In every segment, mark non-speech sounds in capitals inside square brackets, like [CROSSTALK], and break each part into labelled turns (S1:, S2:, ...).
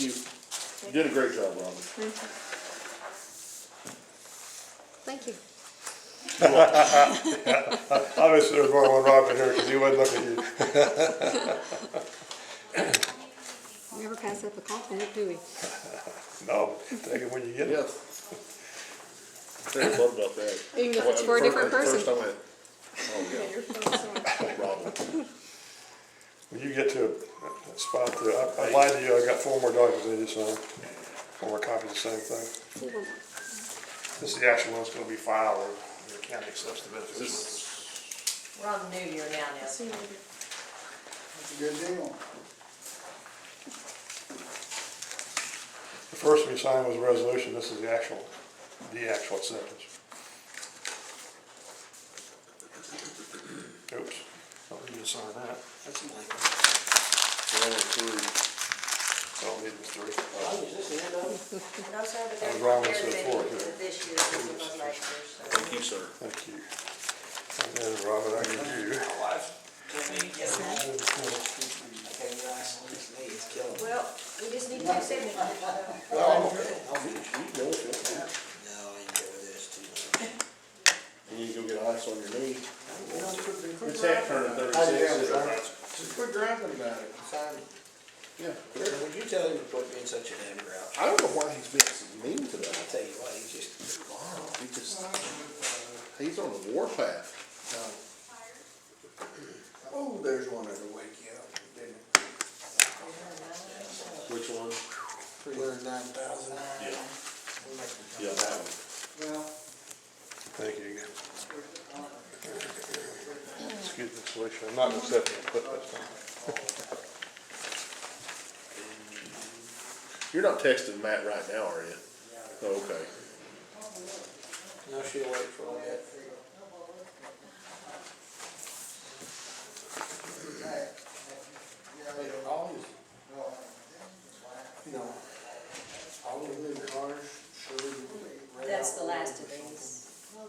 S1: You you did a great job, Robert.
S2: Thank you.
S3: Obviously, there's more than one Robin here, because he wouldn't look at you.
S2: We Never pass up a compliment, do we?
S3: No, take it when you get it.
S1: Yes. I love about that.
S2: Even if it's for a
S1: Fir-
S2: different
S1: First I
S2: person.
S1: went, oh, yeah, Robin.
S3: When you get to a- a spot, that- I I lied to you, I got four more documents I need to sign, four more copies of the same thing. This is the actual one that's gonna be filed, where the county accepts the benefits.
S4: We're on the new year now, Nancy.
S5: That's a good deal.
S3: The first we signed was a resolution, this is the actual, the actual acceptance. Oops, don't need to sign that. That's a blank. Don't need the three.
S4: And those are the
S3: I was wrong, I
S4: compared
S3: said four,
S4: to
S3: yeah.
S4: This year, this is my last year, so.
S1: Thank you, sir.
S3: Thank you. And then, Robert, I give you.
S4: Well, we just need two signatures, so.
S1: You need to go get ice on your knee. It's that turn thirty-six.
S5: thirty-six, is Just quit griping about it.
S1: Yeah.
S6: Would you tell him to quit being such an angry out?
S1: I don't know why he's being so mean to
S6: I
S1: that.
S6: tell you what, he's just,
S1: He just, he's on the warpath.
S5: Oh, there's one that'll wake you up, didn't it?
S1: Which one?
S5: Three hundred nine thousand.
S1: Yeah. Yeah, that one.
S5: Well,
S3: Thank you again. Excuse me, Felicia, I'm not accepting a clip this time.
S1: You're not texting Matt right now, are you? Oh, Okay.
S6: no, she'll wait for all that.
S5: they don't always. You know, all the new cars, surely.
S4: That's the last of these.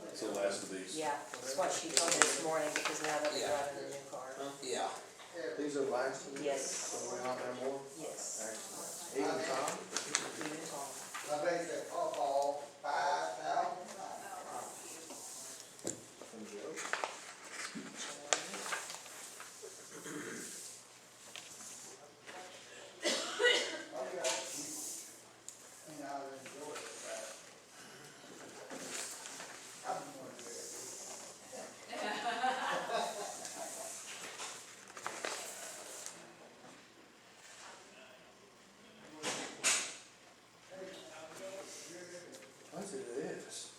S1: It's the last of these.
S4: Yeah, that's what she told me this morning, because now that we're driving the new car.
S6: Yeah.
S5: These are the last of these?
S4: Yes.
S5: So we don't have more?
S4: Yes.
S5: Excellent. Even Tom?
S4: Even Tom.
S5: I think they up all five thousand. I said it is.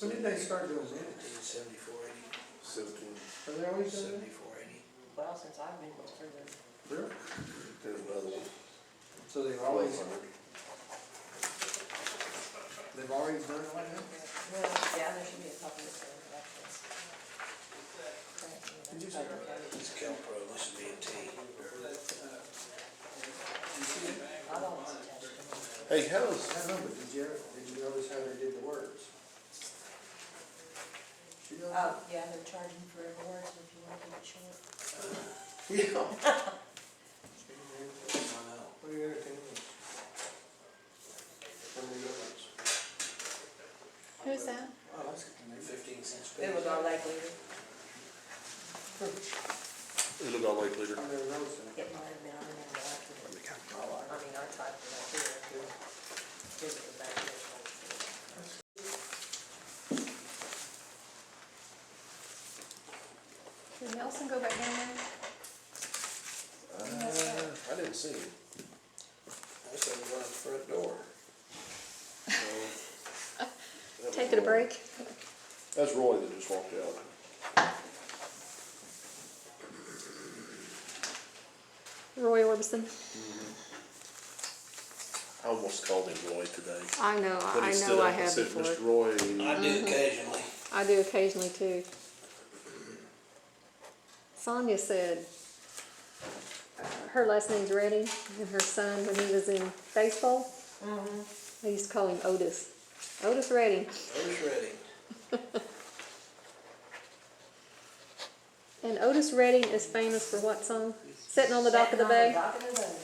S5: When did they start doing this?
S6: Seventy-four eighty,
S1: Seventeen.
S5: Are they always doing it?
S6: seventy-four eighty.
S4: Well, since I've been through the
S5: Really?
S1: There's another one.
S5: So they've always, they've already done it like that?
S4: Well, yeah, there should be a copy of the
S5: Did you
S4: records.
S5: say that?
S6: This is Calpro, this is B and T.
S4: I don't want to touch them.
S1: Hey, how's,
S5: I know, but did you, ever- did you notice how they did the words? She [LAUGHS] knows.
S4: Oh, yeah, they're charging for every word, so if you want to get short.
S5: Yeah.
S6: I know.
S5: What are your other opinions? What are your others?
S2: Who's that?
S6: Oh, that's fifteen cents.
S4: It was our lake leader.
S1: it looked all like leader.
S5: I never noticed them.
S4: It might have been, I remember after. I mean, I typed it up here. Here's the back of it.
S2: Did Nelson go back down there?
S1: I didn't see him.
S6: That's over by the front door.
S1: That was
S2: Taking a
S1: Roy.
S2: break?
S1: That's Roy that just walked out.
S2: Roy Orbison?
S1: I almost called him Roy today.
S2: I know, I-
S1: Then he
S2: I
S1: stood
S2: know
S1: up
S2: I
S1: and
S2: have
S1: said,
S2: before.
S1: Mr. Roy,
S6: I do occasionally.
S2: I do occasionally too. Sonia said, uh, her last name's Redding, and her son, when he was in baseball, they used to call him Otis. Otis Redding.
S6: Otis Redding.
S2: And Otis Redding is famous for what song? Sitting on the dock of the bay?
S4: Dock of the bay.